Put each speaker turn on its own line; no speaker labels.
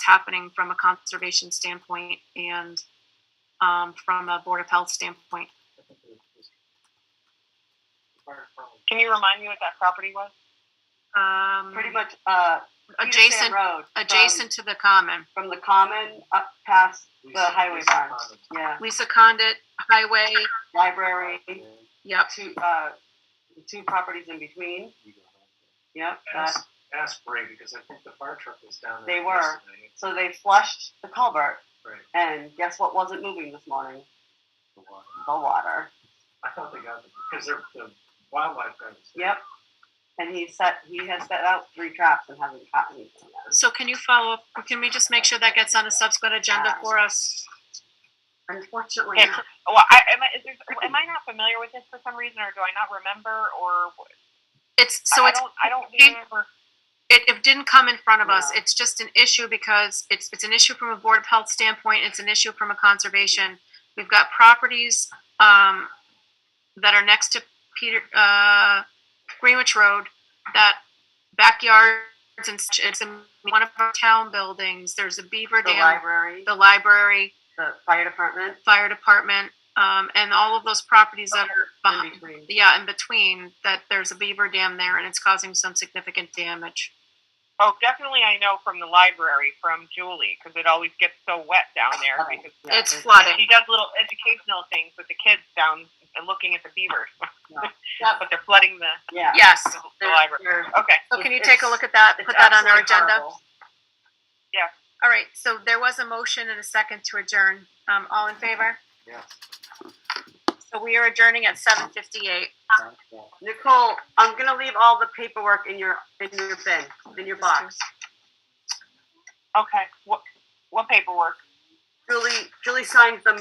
happening from a conservation standpoint and um, from a board of health standpoint.
Can you remind me what that property was?
Um,
Pretty much, uh, Peterson
adjacent,
Road. from-
adjacent to the common.
From the common up past the highway barn, yeah,
Lisa Condit Highway.
library
Yep.
two, uh, the two properties in between, yep. that-
Ask, ask Bray, because I think the fire truck was down there
They were.
yesterday.
So they flushed the culvert
Right.
and guess what wasn't moving this morning?
the water.
The water,
I thought they got, because they're, the wildlife guys.
yep. And he set, he has set out three traps and hasn't caught anything yet.
So can you follow up? Can we just make sure that gets on a subsequent agenda for us?
Unfortunately,
Yeah. Well, I, am, I, is there, am I not familiar with this for some reason, or do I not remember, or wh-
It's so
I,
it's
I don't, I don't
it-
remember.
it, it didn't come in front of us.
No.
It's just an issue because it's, it's an issue from a board of health standpoint. It's an issue from a conservation. We've got properties, um, that are next to Peter, uh, Greenwich Road, that backyards and such, it's in one of our town buildings. There's a beaver
the
dam,
library,
the library,
the fire department,
fire department, um, and all of those properties that are
in
behind,
between.
yeah, in between, that there's a beaver dam there and it's causing some significant damage.
Oh, definitely, I know from the library from Julie because it always gets so wet down there
Flooding,
because
yeah,
It's
there's-
flooding.
she does little educational things with the kids down and looking at the beavers,
Yep,
but they're flooding the,
Yeah.
Yes.
the, the library.
They're-
Okay.
So can you
It's-
take a look at that,
it's
put that on our
absolutely
agenda?
horrible.
All right, so there was a motion and a second to adjourn. Um, all in favor?
Yes.
So we are adjourning at seven fifty-eight.
Nicole, I'm gonna leave all the paperwork in your, in your bin, in your box.
Okay. What, what paperwork?
Julie, Julie signed them